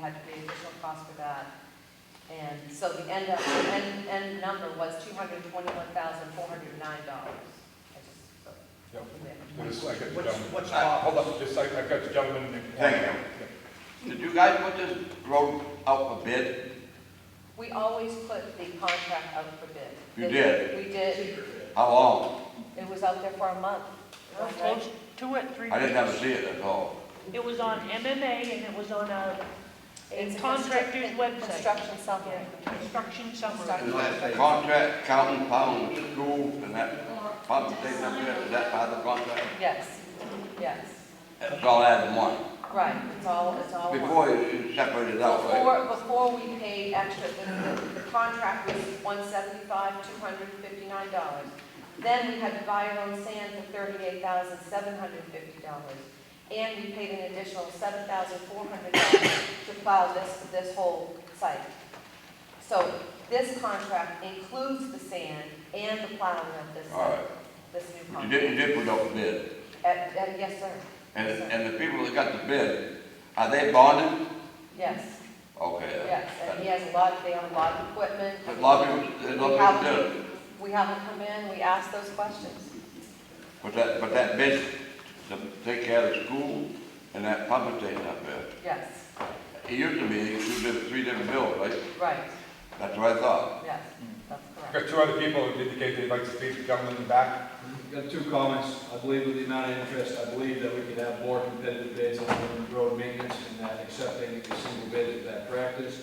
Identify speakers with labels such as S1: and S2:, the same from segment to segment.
S1: had to pay additional cost for that. And so the end, up- the end, end number was two hundred twenty-one thousand, four hundred nine dollars. I just, so,
S2: Yep.
S1: yeah.
S2: There's- I got the
S3: What's-
S2: gentleman-
S3: what's
S2: I-
S3: up?
S2: Hold up, just, I, I got the gentleman. in-
S4: Thank you. Did you guys put this road out for bid?
S1: We always put the contract out for bid.
S4: You did?
S1: We did.
S4: How long?
S1: It was out there for a month.
S5: Well, close to it, three
S4: I didn't ever
S5: weeks.
S4: see it at all.
S5: It was on MMA and it was on a
S1: It's a constru-
S5: contractor's website.
S1: Construction summary.
S5: Yeah, Construction
S1: Construction.
S5: summary.
S4: Is that contract, counting pound, school, and that, pump station up there, is that part of the contract?
S1: Yes, yes,
S4: It's all added in one.
S1: right, it's all, it's all. one.
S4: Before you separated it out, right?
S1: Before, before we paid extra, the, the- the contract was one seventy-five, two hundred and fifty-nine dollars. Then we had to buy our own sand for thirty-eight thousand, seven hundred and fifty dollars. And we paid an additional seven thousand, four hundred dollars to plow this, this whole site. So this contract includes the sand and the plowing of this,
S4: All right.
S1: this new
S4: You
S1: contract.
S4: did, you did put out the bid.
S1: And- and yes, sir,
S4: And, and the people that got the bid, are they bonded?
S1: yes,
S4: Okay.
S1: yes, and he has a lot, they have a lot of equipment.
S4: But a lot of people, there's a
S1: We
S4: lot of people did it.
S1: haven't, we haven't come in, we asked those questions.
S4: But that, but that bid, to take care of the school and that pump station up there.
S1: Yes,
S4: It used to be two different, three different bills, right?
S1: right,
S4: That's what I thought.
S1: yes, that's
S2: I
S1: correct.
S2: Got two other people who indicate they'd like to speak, the gentleman in the back.
S6: Got two comments. I believe with the amount of interest, I believe that we could have more competitive bids on the road maintenance and that accepting a single bid is that practice.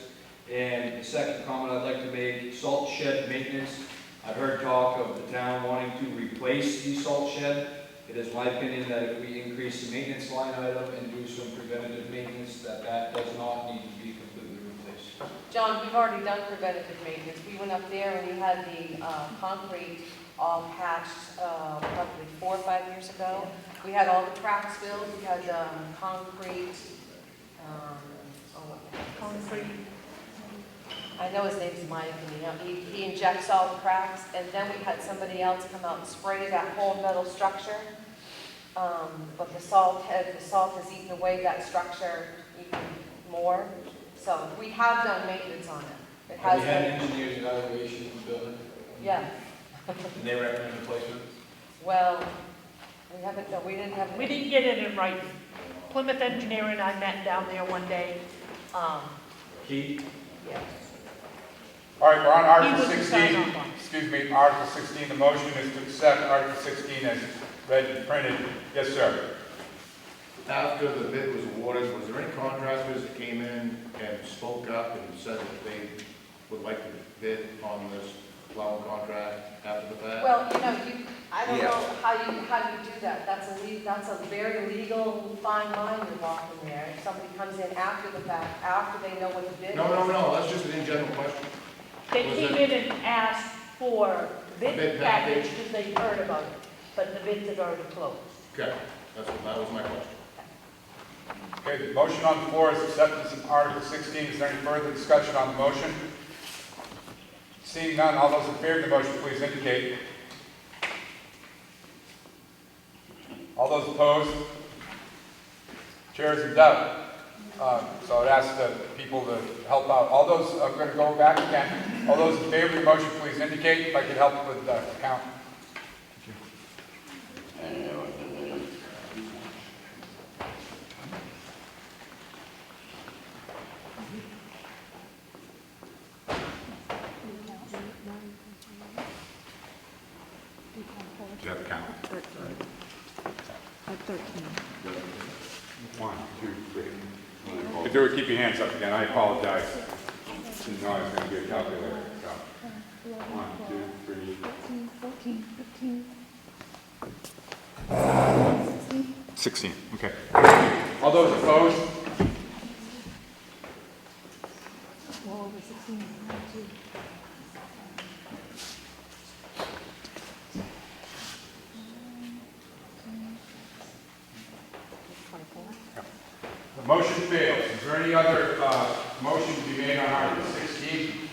S6: And the second comment I'd like to make, salt shed maintenance. I've heard talk of the town wanting to replace the salt shed. It is my opinion that if we increase the maintenance line item and do some preventative maintenance, that that does not need to be completely replaced.
S1: John, we've already done preventative maintenance. We went up there and you had the uh, concrete all patched uh, probably four or five years ago. We had all the cracks filled, we had um, concrete, um, oh, what the heck is his name?
S5: Concrete.
S1: I know his name's Mike, and you know, he, he injects all the cracks, and then we had somebody else come out and spray that whole metal structure. Um, but the salt had, the salt has eaten away that structure even more, so we have done maintenance on it. It
S6: Have
S1: has
S6: you had
S1: been,
S6: engineers evaluation of the building?
S1: yeah,
S6: And they recommend replacement?
S1: well, we haven't, no, we didn't have.
S5: We didn't get it in writing. Plymouth Engineer and I met down there one day. Um,
S6: Keith?
S1: Yeah.
S2: All right, we're on
S5: He
S2: Article
S5: was
S2: sixteen,
S5: assigned on.
S2: excuse me, Article sixteen, the motion is to accept Article sixteen as read and printed. Yes, sir.
S7: After the bid was awarded, was there any contractors that came in and spoke up and said that they would like to bid on this plowing contract after the fact?
S1: Well, you know, you, I don't
S4: Yeah.
S1: know how you, how you do that, that's a le, that's a very legal fine line you're walking there. If somebody comes in after the fact, after they know what the bid is.
S7: No, no, no, that's just an in general question.
S5: They
S7: Was
S5: came in and asked for bid
S7: Bid package.
S5: package because they heard about it, but the bids had already closed.
S7: Okay, that's, what- that was my question.
S2: Okay, the motion on the floor is acceptance of Article sixteen. Is there any further discussion on the motion? Seeing none, all those in favor of the motion, please indicate. All those opposed? Chairs in doubt. Uh, So I'd ask the people to help out. All those, I'm going to go back again. All those in favor of the motion, please indicate if I could help with the count. Do you have a count? One, two, three. If you would keep your hands up again, I apologize. Didn't know I was going to be a calculator, so. One, two, three.
S8: 14, 14, 15.
S2: 16, okay. All those opposed?
S8: Well, over 16, one, two.
S2: The motion fails. Is there any other uh, motion to be made on Article 16?